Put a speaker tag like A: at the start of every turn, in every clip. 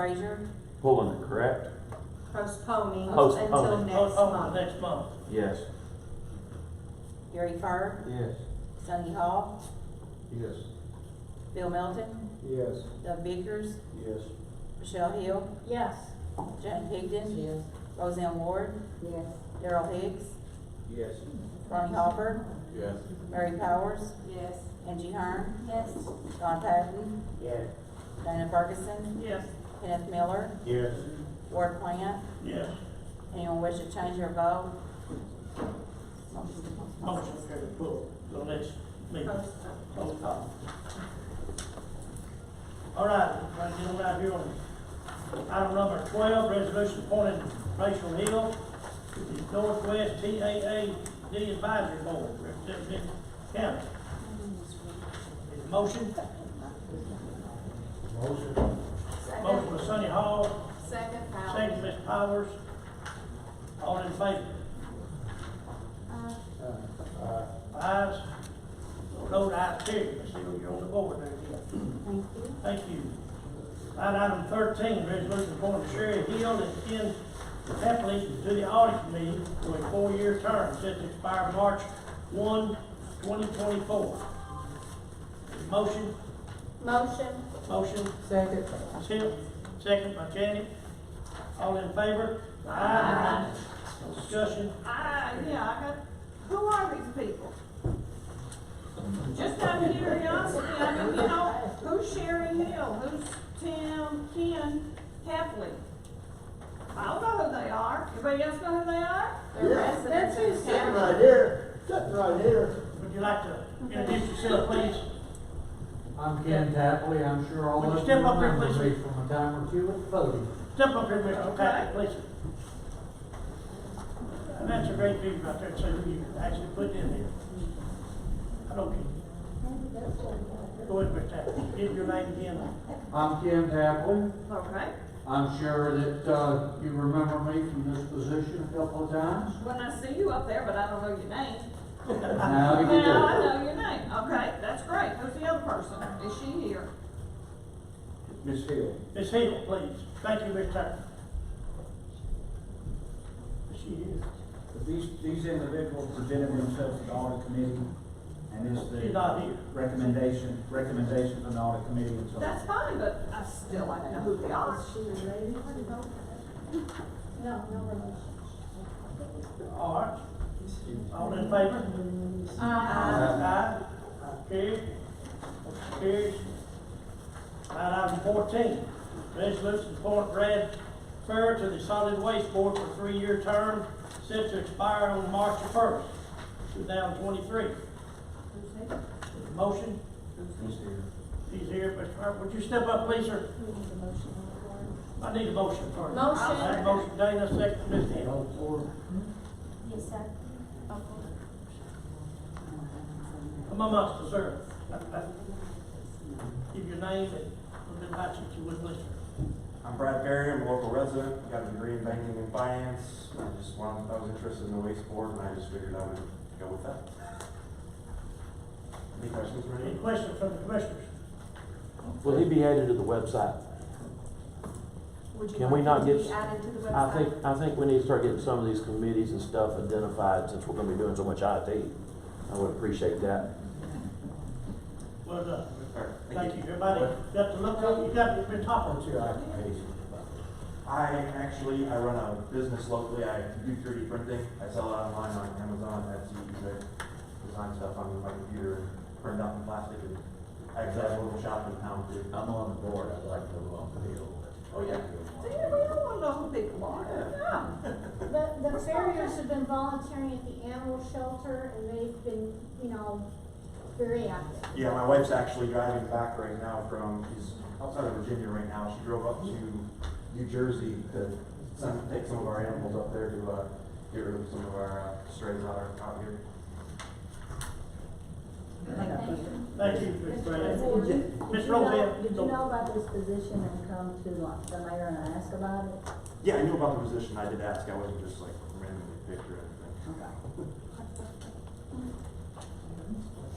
A: Frazier,
B: Pulling it, correct?
A: postponing until
B: Postponing.
A: next
C: Oh, oh,
A: month.
C: next month.
B: Yes.
A: Gary Fur,
B: Yes.
A: Sonny Hall,
B: Yes.
A: Bill Melton,
B: Yes.
A: Doug Bickers,
B: Yes.
A: Michelle Hill,
D: Yes.
A: Jane Higdon,
D: Yes.
A: Roseanne Ward,
D: Yes.
A: Daryl Hicks,
B: Yes.
A: Ronnie Hopper,
B: Yes.
A: Mary Powers,
D: Yes.
A: Angie Hearn,
D: Yes.
A: Don Patton,
B: Yes.
A: Dana Ferguson,
C: Yes.
A: Kenneth Miller,
B: Yes.
A: Ward Plant.
C: Yes.
A: Anyone wish to change their vote?
C: Motion carried, pull, till next meeting. Roll call. All right, we're gonna get on out here on item number twelve, resolution appointing Rachel Hill to the Northwest TAAD Advisory Board, representing the county. Is motion,
B: Motion.
C: motion by Sonny Hall,
D: Second.
C: second by Ms. Powers, all in favor?
B: Aye.
C: Ayes, no ayes, carried, Ms. Hill, you're on the board there again.
D: Thank you.
C: Thank you. Line item thirteen, resolution appointing Sherry Hill and Ken Epley to the audit committee for a four-year term set to expire March 1, 2024. Motion,
D: Motion.
C: motion,
D: Second.
C: Tiff, second by Janet. All in favor? Aye. No discussion?
E: I, yeah, I got, who are these people? Just out of curiosity, I mean, you know, who's Sherry Hill, who's Tim, Ken, Heffley? I don't know who they are, anybody else know who they are?
F: Yeah, that's it, sitting right here, sitting right here.
C: Would you like to introduce yourself, please?
F: I'm Ken Tapley, I'm sure all
C: Would you
F: of you
C: step up here,
F: remember me
C: please?
F: from a time or two at voting.
C: Step up here, Mr. Patrick, please. And that's a great view right there, so you actually put in there. I don't care. Go ahead, Mr. Patrick, give your name again.
F: I'm Ken Tapley,
E: Okay,
F: I'm sure that, uh, you remember me from this position a couple of times.
E: when I see you up there, but I don't know your name.
F: Now you
E: Now I
F: do.
E: know your name, okay, that's great, who's the other person, is she here?
F: Miss Hill.
C: Ms. Hill, please. Thank you, Mr. Tappy. She is.
G: These, these individuals presented themselves to the audit committee, and it's
C: She's
G: the
C: not here.
G: recommendation, recommendation from the audit committee and so on.
E: That's fine, but I still like to know who they are.
D: No, no relation.
C: All right. All in favor? Aye. Carried. Carried. Line item fourteen, resolution to appoint Brad Fair to the solid waste board for a three-year term set to expire on March first, two thousand twenty-three. Motion,
G: These here.
C: he's here, Mr. Fair, would you step up, please, sir? I need a motion first.
E: Motion.
C: I have a motion, Dana, second, Ms. Hill.
F: All four.
D: Yes, sir.
C: Come amongst us, sir. Give your name and we'll invite you to would listen.
H: I'm Brad Perry, I'm a local resident, got a degree in banking and finance. I just wanted, I was interested in the waste board and I just figured I would go with that. Any questions for
C: Any
H: me?
C: questions from the commissioners?
B: Will he be added to the website? Can we not get,
D: Added to the
B: I
D: website.
B: think, I think we need to start getting some of these committees and stuff identified since we're gonna be doing so much IT. I would appreciate that.
C: Well done.
H: All right,
C: Thank you, everybody. Got to look up, you got to be top
H: Welcome to our committee. I actually, I run a business locally, I do three D printing, I sell it online on Amazon, Etsy, eBay. Design stuff on my computer, and print out in plastic, and I actually have a little shop in town too.
G: I'm on the board, I'd like to go on the hill.
H: Oh, yeah.
E: See, we don't wanna know who people are, yeah.
I: The, the farriers have been volunteering at the animal shelter and they've been, you know, very active.
H: Yeah, my wife's actually driving back right now from, she's outside of Virginia right now. She drove up to New Jersey to send, take some of our animals up there to, uh, get rid of some of our uh, strays out, out here.
C: Thank you, Mr. Brad.
D: Did you- did
C: Ms.
D: you know-
C: Roseanne,
D: Did
C: go.
D: you know about this position and come to like the mayor and ask about it?
H: Yeah, I knew about the position. I did ask. I wasn't just like randomly picked or anything.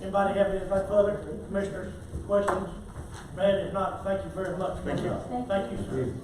C: Anybody have any further commissioners, questions? Brad, if not, thank you very much.
H: Thank you.
C: Thank you, sir.